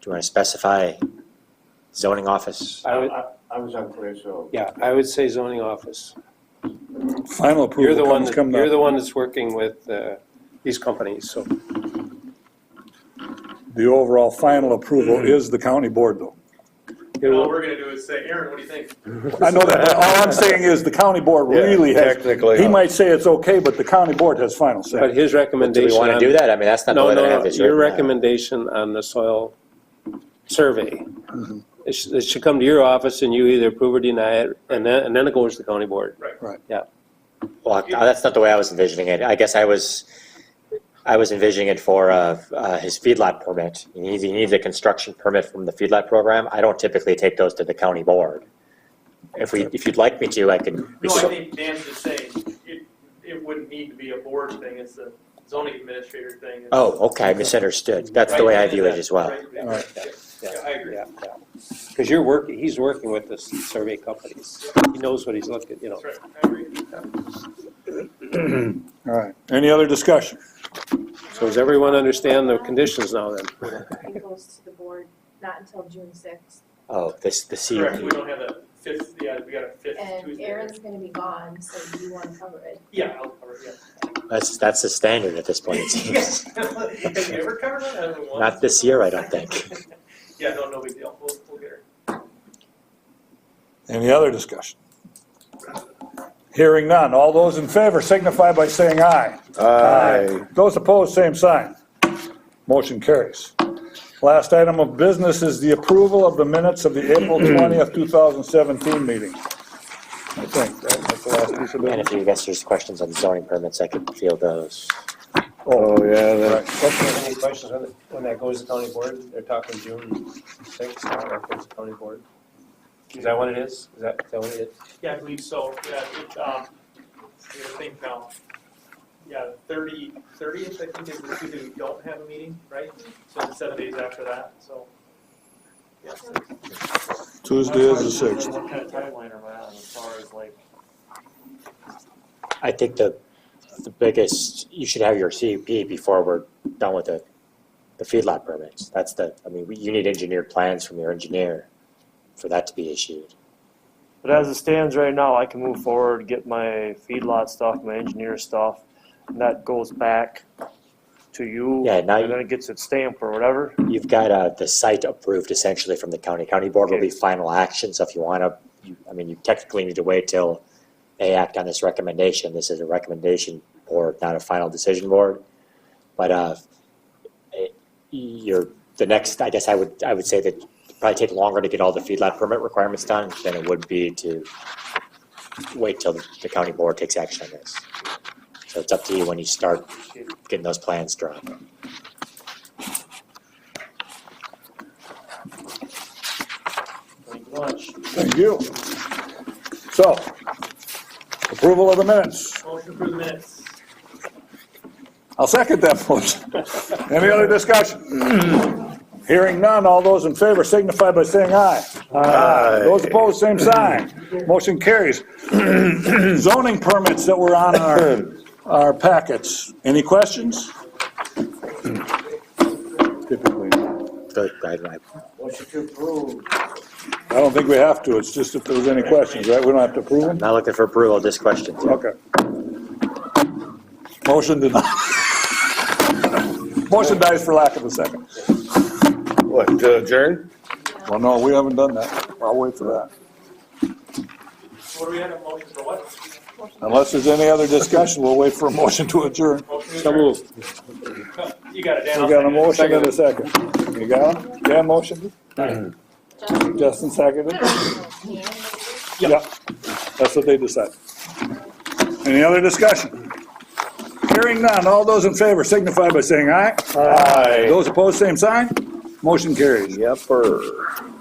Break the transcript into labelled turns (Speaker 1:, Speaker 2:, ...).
Speaker 1: Do you want to specify zoning office?
Speaker 2: I would,
Speaker 3: I I was unclear, so.
Speaker 2: yeah, I would say zoning office.
Speaker 4: Final
Speaker 2: You're the
Speaker 4: approval
Speaker 2: one,
Speaker 4: comes,
Speaker 2: that-
Speaker 4: come
Speaker 2: you're
Speaker 4: the,
Speaker 2: the one that's working with uh, these companies, so,
Speaker 4: the overall final
Speaker 2: Mm-hmm.
Speaker 4: approval is the county board though.
Speaker 2: it
Speaker 5: All
Speaker 2: will-
Speaker 5: we're gonna do is say, Aaron, what do you think?
Speaker 4: I know that, but all I'm saying is the county board
Speaker 6: Yeah,
Speaker 4: really has.
Speaker 6: technically,
Speaker 4: He
Speaker 6: uh,
Speaker 4: might say it's okay, but the county board has final
Speaker 2: but
Speaker 4: say.
Speaker 2: his
Speaker 1: Do
Speaker 2: recommendation.
Speaker 1: we want to
Speaker 2: on-
Speaker 1: do that? I mean, that's not the
Speaker 2: No,
Speaker 1: way that
Speaker 2: no,
Speaker 1: half
Speaker 2: no,
Speaker 1: is
Speaker 2: your
Speaker 1: written.
Speaker 2: recommendation on the soil survey.
Speaker 1: Mm-hmm.
Speaker 2: It should, it should come to your office and you either approve or deny it, and then, and then it goes to the county board.
Speaker 1: Well, that's not the way I was envisioning it. I guess I was, I was envisioning it for uh, uh, his feedlot permit. He needs, he needs a construction permit from the feedlot program. I don't typically take those to the county board. If we, if you'd like me to, I can.
Speaker 5: No, I think Dan's just saying, it, it wouldn't need to be a board thing, it's a zoning administrator thing. It's-
Speaker 1: Oh, okay, I misunderstood. That's the
Speaker 5: Right,
Speaker 1: way I
Speaker 5: yeah,
Speaker 1: view it as well.
Speaker 5: right, yeah,
Speaker 4: Alright.
Speaker 5: yeah, yeah, I agree.
Speaker 2: Yeah, yeah. Because you're working, he's working with the survey companies. He knows what he's looking, you know.
Speaker 5: That's right, I agree.
Speaker 4: All right, any other discussion?
Speaker 2: So does everyone understand the conditions now then?
Speaker 7: It goes to the board, not until June sixth,
Speaker 1: Oh, this, the C.
Speaker 5: Correct, we don't have a fifth, yeah, we got a fifth
Speaker 7: and
Speaker 5: Tuesday.
Speaker 7: Aaron's gonna be gone, so you wanna cover it.
Speaker 5: Yeah, I'll cover it, yeah.
Speaker 1: That's, that's the standard at this point, it seems.
Speaker 5: Have you ever covered that? Hasn't one?
Speaker 1: Not this year, I don't think.
Speaker 5: Yeah, no, no big deal, we'll, we'll get her.
Speaker 4: Any other discussion? Hearing none, all those in favor signify by saying aye.
Speaker 6: Aye.
Speaker 4: Those opposed, same sign. Motion carries. Last item of business is the approval of the minutes of the April 20th, 2017 meeting. I think that- that's the last piece of
Speaker 1: And
Speaker 4: business.
Speaker 1: if you guys there's questions on zoning permits, I could field those.
Speaker 6: Oh, yeah, that-
Speaker 2: Any questions on it? when that goes to county board? They're talking June sixth, now that goes to county board. Is that what it is? Is that, is that what it is?
Speaker 5: Yeah, I believe so, yeah, it, um, I gotta think now. Yeah, thirty, thirtieth, I think is the Tuesday we don't have a meeting, right? So it's seven days after that, so. yeah, so-
Speaker 4: Tuesday is the 6th.
Speaker 5: What kind of timeline am I on as far as like?
Speaker 1: I think the, the biggest, you should have your CUP before we're done with the, the feedlot permits. That's the, I mean, we- you need engineered plans from your engineer for that to be issued.
Speaker 8: But as it stands right now, I can move forward, get my feedlot stuff, my engineer stuff, and that goes back to you.
Speaker 1: Yeah, now you-
Speaker 8: And then it gets its stamp or whatever.
Speaker 1: You've got, uh, the site approved essentially from the county. County board will be final action, so if you wanna, you, I mean, you technically need to wait till they act on this recommendation. This is a recommendation board, not a final decision board. But, uh, it- you're, the next, I guess I would, I would say that it'd probably take longer to get all the feedlot permit requirements done than it would be to wait till the county board takes action on this. So it's up to you when you start getting those plans drawn.
Speaker 8: Thank you much.
Speaker 4: Thank you. So, approval of the minutes.
Speaker 5: Motion for the minutes.
Speaker 4: I'll second that motion. Any other discussion? Hearing none, all those in favor signify by saying aye.
Speaker 6: Aye.
Speaker 4: Those opposed, same sign. Motion carries. Zoning permits that were on our, our packets. Any questions?
Speaker 6: typically.
Speaker 1: Go ahead, Mike.
Speaker 3: Motion to approve.
Speaker 4: I don't think we have to, it's just if there was any questions, right? We don't have to approve them?
Speaker 1: Not looking for approval, just questions.
Speaker 4: Okay. Motion denied. Motion dies for lack of a second.
Speaker 6: What, to adjourn?
Speaker 4: Well, no, we haven't done that. I'll wait for that.
Speaker 5: What do we have, a motion for what?
Speaker 4: Unless there's any other discussion, we'll wait for a motion to adjourn.
Speaker 5: Motion to
Speaker 2: So
Speaker 5: adjourn.
Speaker 2: moved.
Speaker 5: You got it,
Speaker 4: We
Speaker 5: Dan. I'll
Speaker 4: got a motion
Speaker 5: second it.
Speaker 4: and a second. You got it? Yeah, motion? Justin seconded? Yeah. That's what they decided. Any other discussion? Hearing none, all those in favor signify by saying aye.
Speaker 6: Aye.
Speaker 4: Those opposed, same sign. Motion carries.
Speaker 6: Yepper.